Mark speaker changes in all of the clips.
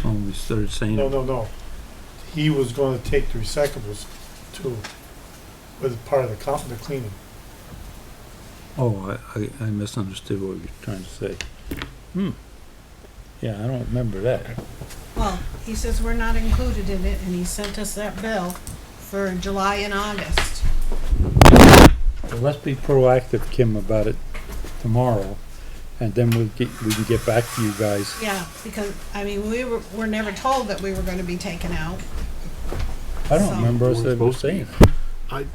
Speaker 1: started saying.
Speaker 2: Mm.
Speaker 3: No, no, no. He was gonna take the recyclables too, with part of the comp, the cleaning.
Speaker 1: Oh, I, I, I misunderstood what you were trying to say. Hmm. Yeah, I don't remember that.
Speaker 4: Well, he says we're not included in it, and he sent us that bill for July and August.
Speaker 1: Well, let's be proactive, Kim, about it tomorrow, and then we'll get, we can get back to you guys.
Speaker 4: Yeah, because, I mean, we were, were never told that we were gonna be taken out.
Speaker 1: I don't
Speaker 4: So-
Speaker 1: remember us
Speaker 2: We're
Speaker 1: ever
Speaker 2: supposed to be.
Speaker 1: saying.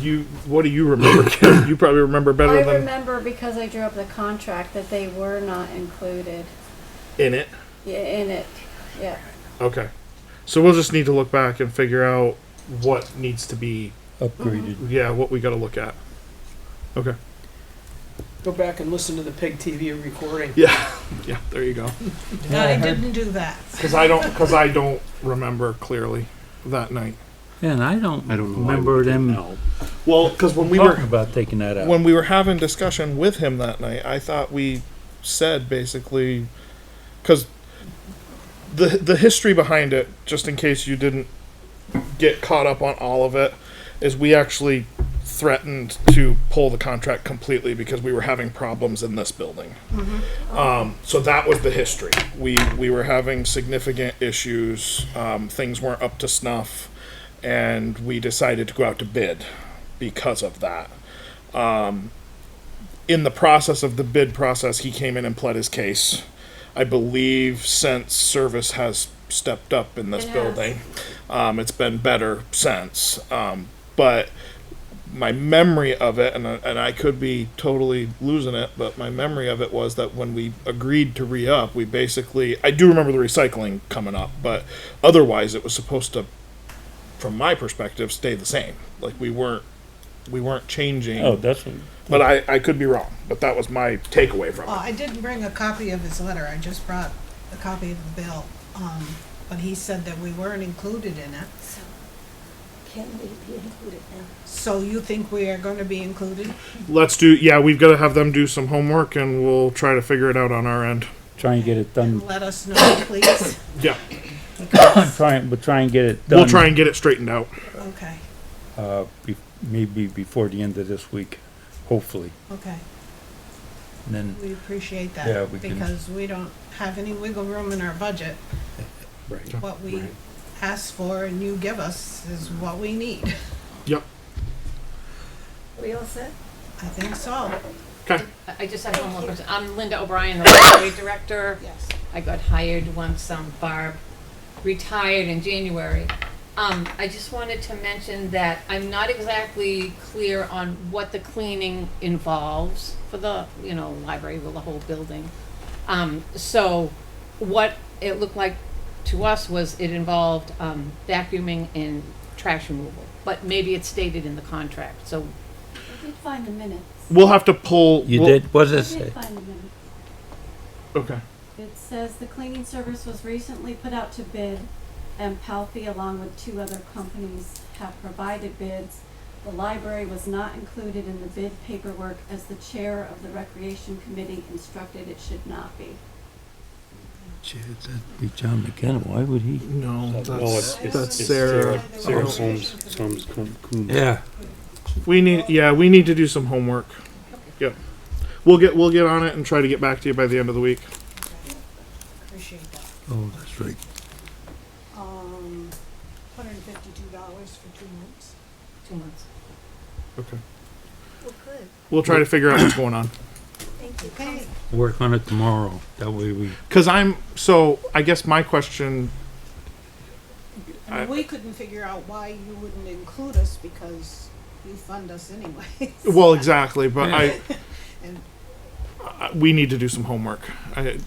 Speaker 2: You, what do you remember, Kim? You probably remember better
Speaker 5: I
Speaker 2: than
Speaker 5: remember because I drew up the contract that they were not included
Speaker 2: in it.
Speaker 5: Yeah, in it. Yeah.
Speaker 2: Okay. So we'll just need to look back and figure out what needs to be,
Speaker 1: Upgraded.
Speaker 2: yeah, what we gotta look at. Okay.
Speaker 6: Go back and listen to the PEG TV recording.
Speaker 2: Yeah. Yeah, there you go.
Speaker 4: No, I didn't do that.
Speaker 2: Cause I don't, cause I don't remember clearly that night.
Speaker 1: Yeah, and I don't
Speaker 2: I don't know why
Speaker 1: remember them
Speaker 2: Well, oh. cause when we were,
Speaker 1: talking about taking that out.
Speaker 2: when we were having discussion with him that night, I thought we said basically because the the history behind it, just in case you didn't get caught up on all of it, is we actually threatened to pull the contract completely because we were having problems in this building. Um, so that was the history. We we were having significant issues. Um, things weren't up to snuff, and we decided to go out to bid because of that Um, in the process of the bid process, he came in and pled his case. I believe since service has stepped up in this
Speaker 5: It has.
Speaker 2: building, um, it's been better since. Um, but my memory of it, and I, and I could be totally losing it, but my memory of it was that when we agreed to re up, we basically I do remember the recycling coming up, but otherwise it was supposed to, from my perspective, stay the same. Like we weren't we weren't changing.
Speaker 1: Oh, that's, what-
Speaker 2: But I, I could be wrong. But that was my takeaway from
Speaker 4: Well,
Speaker 2: it.
Speaker 4: I didn't bring a copy of his letter, I just brought a copy of the bill. Um, but he said that we weren't included in it.
Speaker 5: So can we be included now?
Speaker 4: So you think we are gonna be included?
Speaker 2: Let's do. Yeah, we've got to have them do some homework, and we'll try to figure it out on our end.
Speaker 1: try and get it done,
Speaker 4: Let us know, please.
Speaker 2: Yeah,
Speaker 1: try, and- but try and get it done.
Speaker 2: we'll try and get it straightened out.
Speaker 4: Okay,
Speaker 1: Uh, be- maybe before the end of this week, hopefully,
Speaker 4: okay.
Speaker 1: and then.
Speaker 4: We appreciate
Speaker 1: Yeah,
Speaker 4: that,
Speaker 1: we can-
Speaker 4: because we don't have any wiggle room in our budget.
Speaker 1: Right.
Speaker 4: What we ask for and you give us is what we need.
Speaker 2: Yep.
Speaker 5: We all set?
Speaker 4: I think so.
Speaker 2: Okay.
Speaker 7: I- I just have one more question. I'm Linda O'Brien, the library director.
Speaker 4: Yes.
Speaker 7: I got hired once, um, Barb retired in January. Um, I just wanted to mention that I'm not exactly clear on what the cleaning involves for the, you know, library, well, the whole building. Um, so what it looked like to us was it involved, um, vacuuming and trash removal. But maybe it's stated in the contract, so
Speaker 5: I did find the minutes.
Speaker 2: We'll have to pull.
Speaker 1: You
Speaker 2: we'll-
Speaker 1: did, what does it
Speaker 5: I did
Speaker 1: say?
Speaker 5: find the minutes.
Speaker 2: Okay.
Speaker 5: It says the cleaning service was recently put out to bid and Palfi along with two other companies have provided bids. The library was not included in the bid paperwork as the chair of the recreation committee instructed it should not be.
Speaker 1: Gee, that'd be John McKenna, why would he?
Speaker 2: No,
Speaker 8: it's-
Speaker 2: that's
Speaker 8: it's-
Speaker 2: that's
Speaker 8: it's
Speaker 2: Sarah. Oh.
Speaker 8: Sarah
Speaker 2: Sarah
Speaker 8: Holmes, it's Holmes Coon- Coon.
Speaker 1: Yeah,
Speaker 2: We need. Yeah, we need to do some homework. Yep. We'll get we'll get on it and try to get back to you by the end of the week.
Speaker 4: Appreciate that.
Speaker 1: oh, that's right.
Speaker 4: Um, hundred and fifty-two dollars for two months.
Speaker 7: two months.
Speaker 2: Okay.
Speaker 5: Well, good,
Speaker 2: We'll try to figure out what's going on.
Speaker 5: thank you.
Speaker 4: Okay,
Speaker 1: Work on it tomorrow, that way we,
Speaker 2: Because I'm so. I guess my question. I-
Speaker 4: and we couldn't figure out why you wouldn't include us because you fund us anyway.
Speaker 2: Well, exactly, but I.
Speaker 4: And-
Speaker 2: I- We need to do some homework. I,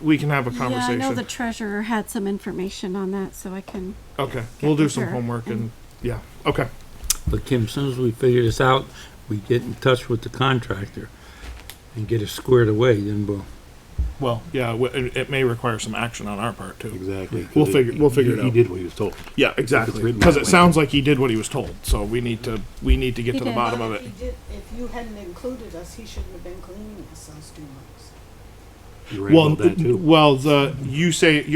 Speaker 2: we can have a
Speaker 5: Yeah, I
Speaker 2: conversation.
Speaker 5: know the treasurer had some information on that, so I can.
Speaker 2: Okay,
Speaker 5: get
Speaker 2: we'll do
Speaker 5: with
Speaker 2: some
Speaker 5: her
Speaker 2: homework
Speaker 5: and-
Speaker 2: and, yeah, okay,
Speaker 1: but Kim, as soon as we figure this out, we get in touch with the contractor and get it squared away, then we'll,
Speaker 2: well, yeah, w- it, it may require some action on our part too.
Speaker 8: Exactly. 'cause
Speaker 2: We'll
Speaker 8: it-
Speaker 2: figure- we'll
Speaker 8: he-
Speaker 2: figure it
Speaker 8: He
Speaker 2: out.
Speaker 8: did what he was told.
Speaker 2: Yeah, exactly,
Speaker 8: written
Speaker 2: because
Speaker 8: that
Speaker 2: it
Speaker 8: way.
Speaker 2: sounds like he did what he was told, so we need to, we need to get
Speaker 5: He
Speaker 2: to the
Speaker 5: did.
Speaker 2: bottom of
Speaker 4: If
Speaker 2: it.
Speaker 4: he did- If you hadn't included us, he shouldn't have been cleaning us those two months.
Speaker 8: You're right
Speaker 2: Well,
Speaker 8: about that too.
Speaker 2: well, the, you say,